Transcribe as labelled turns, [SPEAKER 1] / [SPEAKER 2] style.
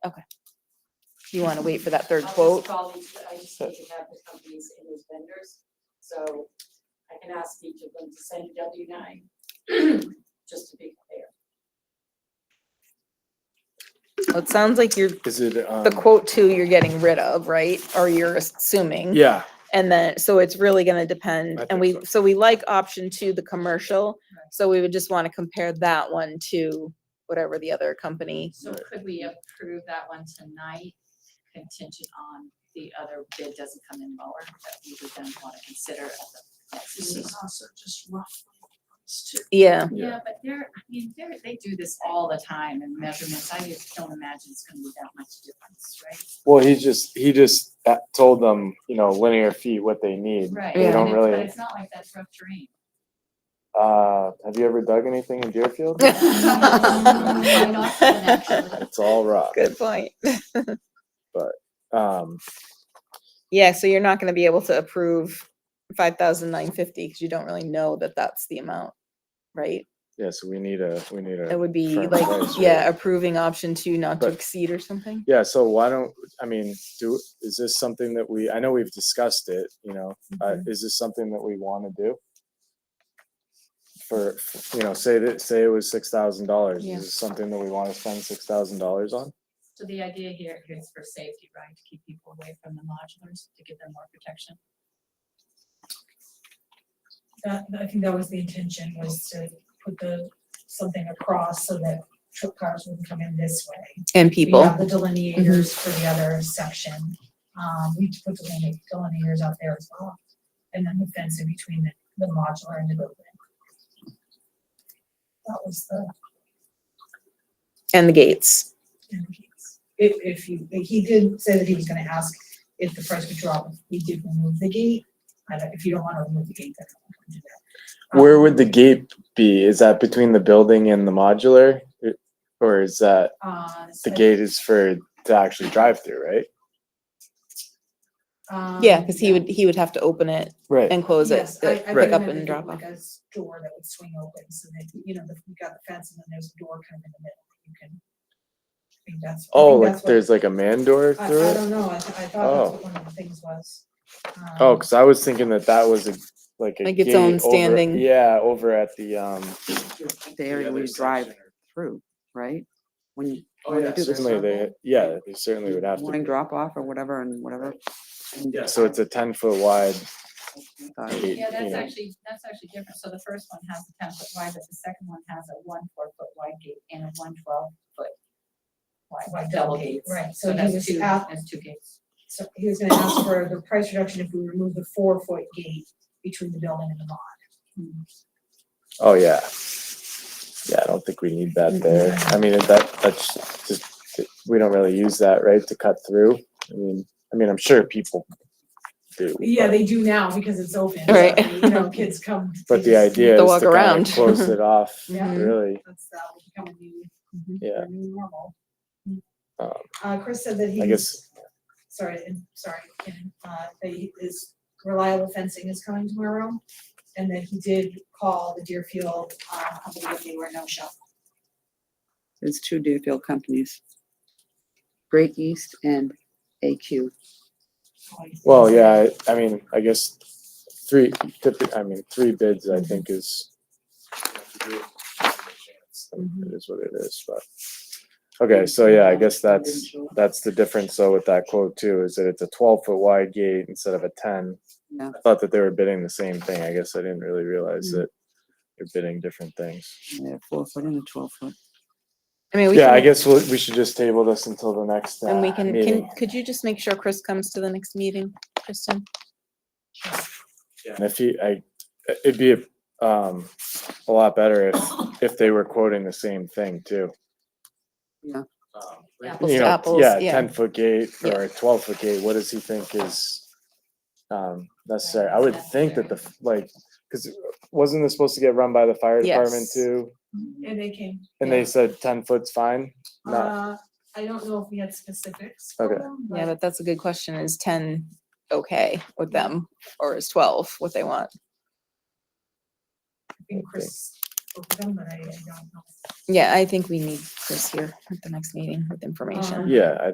[SPEAKER 1] You want to wait for that third
[SPEAKER 2] I'll just
[SPEAKER 1] quote?
[SPEAKER 2] call each- I just need to have the companies and those vendors, so I can ask each of them to send a W nine, just to be clear.
[SPEAKER 1] Well, It sounds like you're,
[SPEAKER 3] Is it, um?
[SPEAKER 1] the quote two you're getting rid of, right? Or you're assuming.
[SPEAKER 3] Yeah,
[SPEAKER 1] And then, so it's really gonna
[SPEAKER 3] I
[SPEAKER 1] depend, and
[SPEAKER 3] think
[SPEAKER 1] we,
[SPEAKER 3] so.
[SPEAKER 1] so we like option two, the commercial, so we would just wanna compare that one to whatever the other company.
[SPEAKER 4] So could we approve that one tonight contingent on the other bid doesn't come in lower that we would then want to consider at the next
[SPEAKER 5] This
[SPEAKER 4] meeting?
[SPEAKER 5] is also just roughly. it's too-
[SPEAKER 1] Yeah,
[SPEAKER 3] Yeah.
[SPEAKER 4] Yeah, but they're, I mean, they're, they do this all the time in measurements. I just don't imagine it's gonna be that much difference, right?
[SPEAKER 3] well, he just, he just uh, told them, you know, linear feet, what they need.
[SPEAKER 4] Right.
[SPEAKER 1] They
[SPEAKER 4] and
[SPEAKER 3] don't
[SPEAKER 4] it-
[SPEAKER 3] really-
[SPEAKER 4] But it's not like that's rough terrain.
[SPEAKER 3] Uh, have you ever dug anything in Deerfield?
[SPEAKER 4] Quite often, actually.
[SPEAKER 3] It's all rock,
[SPEAKER 1] good point.
[SPEAKER 3] um,
[SPEAKER 1] Yeah, so you're not gonna be able to approve five thousand nine fifty, because you don't really know that that's the amount, right?
[SPEAKER 3] yeah, so we need a, we need
[SPEAKER 1] It
[SPEAKER 3] a,
[SPEAKER 1] would be
[SPEAKER 3] Firm
[SPEAKER 1] like,
[SPEAKER 3] price,
[SPEAKER 1] yeah,
[SPEAKER 3] right.
[SPEAKER 1] approving option two not to
[SPEAKER 3] But-
[SPEAKER 1] exceed or something.
[SPEAKER 3] yeah, so why don't, I mean, do, is this something that we, I know we've discussed it, you know, uh,
[SPEAKER 1] Mhm.
[SPEAKER 3] is this something that we wanna do? For, you know, say that, say it was six thousand dollars,
[SPEAKER 1] Yeah.
[SPEAKER 3] is this something that we wanna spend six thousand dollars on?
[SPEAKER 4] So the idea here is for safety, right? To keep people away from the modulars, to give them more protection.
[SPEAKER 5] That, I think that was the intention, was to put the, something across so that trip cars wouldn't come in this way.
[SPEAKER 1] And
[SPEAKER 5] We
[SPEAKER 1] people,
[SPEAKER 5] have the delineators for the other section. Um, we put deline- delineators out there as well. And then the fence in between the, the modular and the building. That was the,
[SPEAKER 1] and the gates,
[SPEAKER 5] and he's- if, if you, he did say that he was gonna ask if the price would drop, if we did remove the gate. I don't, if you don't wanna remove the gate, then I don't wanna do that.
[SPEAKER 3] Where
[SPEAKER 5] Um,
[SPEAKER 3] would the gate be? Is that between the building and the modular? It- Or is that,
[SPEAKER 5] Um,
[SPEAKER 4] Uh,
[SPEAKER 3] the
[SPEAKER 4] so-
[SPEAKER 3] gate is for to actually drive through, right?
[SPEAKER 1] yeah,
[SPEAKER 5] um,
[SPEAKER 1] because he would, he would have to open it
[SPEAKER 3] Right.
[SPEAKER 1] and close it,
[SPEAKER 5] Yes, I- I
[SPEAKER 1] like,
[SPEAKER 5] think
[SPEAKER 1] pick up
[SPEAKER 5] that
[SPEAKER 1] and
[SPEAKER 5] they do
[SPEAKER 1] drop off.
[SPEAKER 5] Like a s- door that would swing open, so that, you know, the- you got the fence and then there's a door kind of in the middle, that you can. I think that's. I
[SPEAKER 3] Oh,
[SPEAKER 5] think
[SPEAKER 3] like
[SPEAKER 5] that's what-
[SPEAKER 3] there's like a man door
[SPEAKER 5] I,
[SPEAKER 3] through
[SPEAKER 5] I
[SPEAKER 3] it?
[SPEAKER 5] don't know, I, th- I
[SPEAKER 3] Oh.
[SPEAKER 5] thought that's what one of the things was.
[SPEAKER 3] Oh,
[SPEAKER 5] um,
[SPEAKER 3] because I was thinking that that was a, like a
[SPEAKER 1] Like its own
[SPEAKER 3] gate over-
[SPEAKER 1] standing-
[SPEAKER 3] Yeah, over at the, um.
[SPEAKER 6] the area where you drive through, right? When you.
[SPEAKER 3] Oh,
[SPEAKER 6] when they
[SPEAKER 3] yeah,
[SPEAKER 6] do the
[SPEAKER 3] certainly they,
[SPEAKER 6] circle,
[SPEAKER 3] yeah, they certainly would have to.
[SPEAKER 6] Morning drop off or whatever and whatever. and,
[SPEAKER 3] Yeah, so it's a ten foot wide
[SPEAKER 6] uh,
[SPEAKER 3] gate,
[SPEAKER 4] Yeah,
[SPEAKER 3] you
[SPEAKER 4] that's
[SPEAKER 3] know.
[SPEAKER 4] actually, that's actually different. So the first one has a ten foot wide, but the second one has a one four foot wide gate and a one twelve foot wide,
[SPEAKER 5] Wide
[SPEAKER 4] double
[SPEAKER 5] double gate,
[SPEAKER 4] gates.
[SPEAKER 5] right. So
[SPEAKER 4] So
[SPEAKER 5] he
[SPEAKER 4] that's
[SPEAKER 5] was
[SPEAKER 4] two,
[SPEAKER 5] out-
[SPEAKER 4] that's two gates.
[SPEAKER 5] So he was gonna ask for the price reduction if we remove the four foot gate between the building and the lot.
[SPEAKER 4] Mm-hmm.
[SPEAKER 3] Oh, yeah. Yeah, I don't think we need that there. I mean, that, that's just, we don't really use that, right, to cut through? I mean, I mean, I'm sure people do.
[SPEAKER 5] Yeah,
[SPEAKER 3] but-
[SPEAKER 5] they do now because it's open, so,
[SPEAKER 1] Right.
[SPEAKER 5] you know, kids come.
[SPEAKER 3] But
[SPEAKER 5] they
[SPEAKER 3] the
[SPEAKER 5] just-
[SPEAKER 3] idea
[SPEAKER 1] To
[SPEAKER 3] is
[SPEAKER 1] walk
[SPEAKER 3] to kind
[SPEAKER 1] around.
[SPEAKER 3] of close it off,
[SPEAKER 5] Yeah.
[SPEAKER 3] really.
[SPEAKER 5] That's, that will become a new,
[SPEAKER 3] Yeah,
[SPEAKER 5] a new normal.
[SPEAKER 3] Um,
[SPEAKER 5] Uh, Chris said that
[SPEAKER 3] I
[SPEAKER 5] he's,
[SPEAKER 3] guess,
[SPEAKER 5] sorry, and- sorry, Ken, uh, that he is reliable fencing is coming tomorrow. And that he did call the Deerfield, uh, company if they were no show.
[SPEAKER 6] It's two Deerfield companies. Great East and AQ.
[SPEAKER 3] well, yeah, I I mean, I guess three, typi- I mean, three bids,
[SPEAKER 5] Mm-hmm.
[SPEAKER 3] I think is. It is what it is, but, okay, so yeah, I guess that's. That's the difference though with that quote too, is that it's a twelve foot wide gate instead of a ten.
[SPEAKER 6] Yeah.
[SPEAKER 3] I thought that they were bidding the same thing. I guess I didn't really realize
[SPEAKER 1] Hmm.
[SPEAKER 3] that they're bidding different things.
[SPEAKER 6] Yeah, Four foot and a twelve foot.
[SPEAKER 1] I mean, we
[SPEAKER 3] Yeah, I
[SPEAKER 1] can,
[SPEAKER 3] guess we'll- we should just table this until the next
[SPEAKER 1] and we
[SPEAKER 3] uh,
[SPEAKER 1] can,
[SPEAKER 3] meeting.
[SPEAKER 1] can, could you just make sure Chris comes to the next meeting, Kristen?
[SPEAKER 3] And if he, I, it'd be um, a lot better if, if they were quoting the same thing too.
[SPEAKER 6] Yeah.
[SPEAKER 1] Apples
[SPEAKER 3] You
[SPEAKER 1] to
[SPEAKER 3] know,
[SPEAKER 1] apples,
[SPEAKER 3] yeah,
[SPEAKER 1] yeah.
[SPEAKER 3] ten foot gate
[SPEAKER 1] Yeah.
[SPEAKER 3] or twelve foot gate, what does he think is um necessary? I would think that the, f- like, cause wasn't this supposed to get run by the fire department
[SPEAKER 1] Yes.
[SPEAKER 3] too?
[SPEAKER 5] And they came,
[SPEAKER 3] And they said ten foot's fine? No,
[SPEAKER 5] uh, I don't know if we had specifics.
[SPEAKER 3] Okay.
[SPEAKER 1] Yeah, but that's a good question. Is ten okay with them or is twelve what they want?
[SPEAKER 5] I think Chris spoke with him, but I I don't know.
[SPEAKER 1] Yeah, I think we need Chris here at the next meeting with information.
[SPEAKER 5] Um,
[SPEAKER 3] Yeah, I